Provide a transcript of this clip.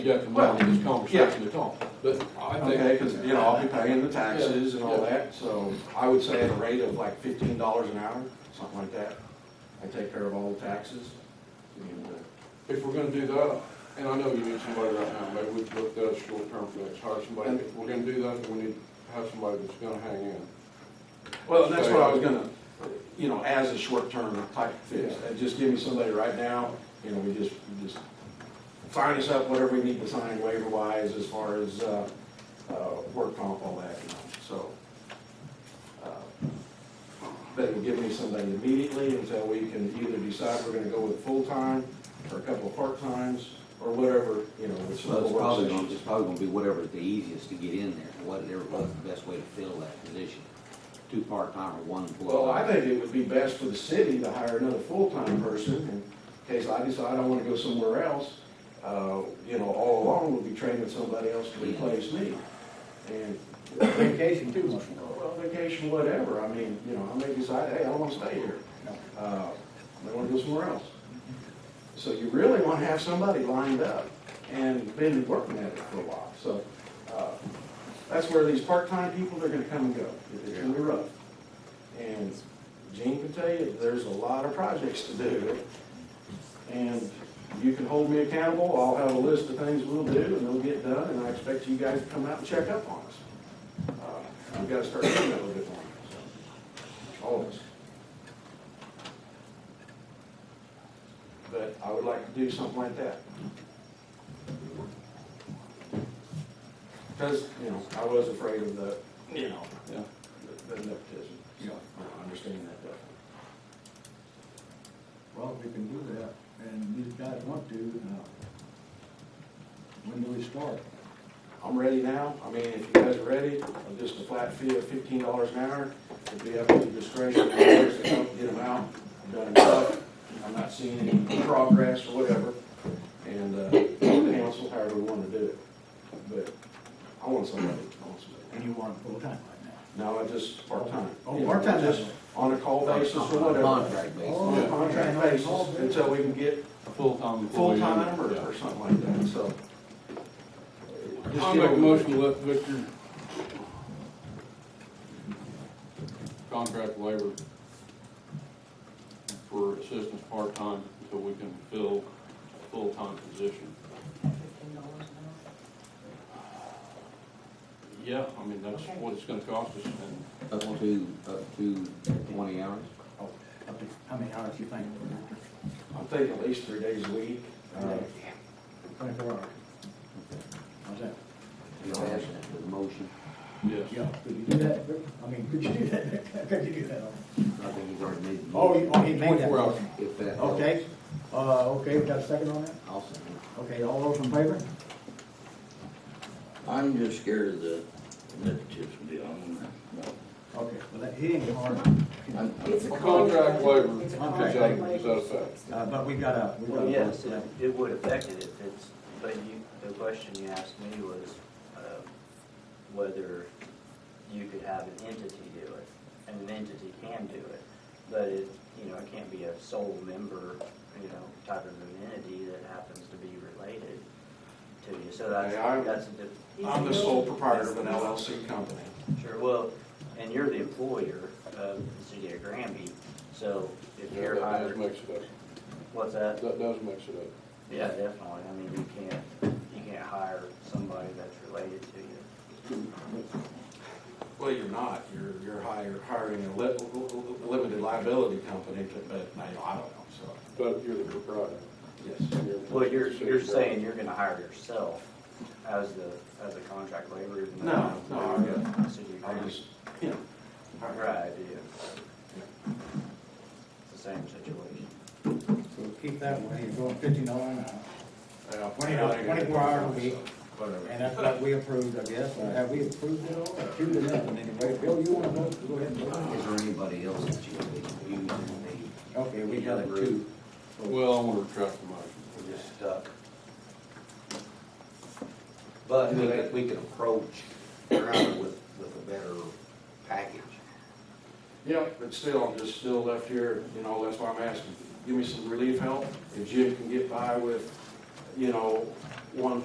You have to come up with this conversation at all, but I Okay, think, because, you know, I'll be paying the taxes and all that, so I would say at a rate of like fifteen dollars an hour, something like that. I take care of all the taxes. and, uh, if we're gonna do that, and I know you need somebody right now, maybe we could look that as short-term fix, hire somebody, if we're gonna do that, we need to have somebody that's gonna hang in. Well, and that's what I was gonna, you know, as a short-term type fix, Yeah. Uh, just give me somebody right now, you know, we just, we just find us up whatever we need to sign waiver-wise as far as, uh, uh, work comp, all that, you know, so. uh, But it would give me somebody immediately until we can either decide we're gonna go with full-time or a couple of part-times or whatever, you know, with some Well, of the it's work probably gonna, sessions. it's probably gonna be whatever's the easiest to get in there, and whatever was the best way to fill that position. Two part-time or one full-time. Well, I think it would be best for the city to hire another full-time person in case I decide I want to go somewhere else. Uh, You know, all along, we'll be training somebody else to replace me. And, Vacation too much. well, vacation, whatever, I mean, you know, I may decide, hey, I want to stay here. Uh, I want to go somewhere else. So you really want to have somebody lined up and been working at it for a while. So uh, that's where these part-time people, they're going to come and go. It's going to be rough. And Gene can tell you, there's a lot of projects to do. And you can hold me accountable, I'll have a list of things we'll do, and they'll get done, and I expect you guys to come out and check up on us. Uh, We've got to start doing that a little bit more, so, all of us. But I would like to do something like that. Because, you know, I was afraid of the, you know, Yeah. the the nepotism, so I understand that definitely. Well, we can do that, and these guys want to, now. When do we start? I'm ready now. I mean, if you guys are ready, uh, just a flat fee of fifteen dollars an hour. It'd be up to the discretion of the lawyers to help get them out. I've done enough. I'm not seeing any progress or whatever. And, uh, council, however we want to do it. But I want somebody, I want And somebody. you want it full-time right now? No, I just part-time. Oh, part-time, that's- On a call basis or On a whatever. Contract Oh. basis. On a contract basis until we can get A full-time full-time or, or something like that, so. Just I get make a over it. motion to let Victor contract labor for assistance part-time until we can fill a full-time position. Fifteen dollars an hour? Yeah, I mean, that's Okay. what it's gonna cost us, and Up to, up to twenty hours. Oh, up to, how many hours you think? I'm thinking at least three days a week. Uh, Twenty-four hours. How's that? You don't ask that for the motion. yes. Yeah, could you do that, Rick? I mean, could you do that, could you do that? I think he's already made the Oh, you, motion. oh, he made that. 24 hours. If that helps. Okay, uh, okay, we got a second on that? I'll second. Okay, all those in favor? I'm just scared of the nepotism deal. I'm- Okay, well, that, he didn't get hard, I'm- It's a Well, contract labor, It's a contract contract labor, labor. is that a fact? uh, but we got a, we got Well, a. yes, it- it would affect it if it's, but you, the question you asked me was uh, whether you could have an entity do it, and an entity can do it. But it, you know, it can't be a sole member, you know, type of an entity that happens to be related to you. So that's, Yeah, I- that's a diff, I'm the sole proprietor of an LLC company. sure, well, and you're the employer of the city of Granby, so if Yeah, That you're does hired, mix it what's that? up, that does mix it up. Yeah, definitely. I mean, you can't, you can't hire somebody that's related to you. Well, you're not, you're, you're hire- hiring a li- a limited liability company, but I I don't know, so, But you're the proprietor. yes. and you're- Well, you're, you're City saying you're gonna hire yourself as the, as a contract laborer? even though No, no, I'm you're good. a city I employee. just, you know, hire- Right, yeah. It's the same situation. So keep that way, you're going uh, fifteen dollars an hour, yeah, 20 hours, 24 hours a week. Whatever. and that's what we approved, I guess, or have we approved it all, approved it nothing anyway, Bill, you wanna vote, go ahead and Is vote? there anybody else that you would be using the, Okay, we got a two, Well, I want to retract the motion. we're just stuck? But we could, we could approach Crowder with, with a better package. Yep, but still, I'm just still left here, you know, that's why I'm asking, give me some relief help. If Jim can get by with, you know, one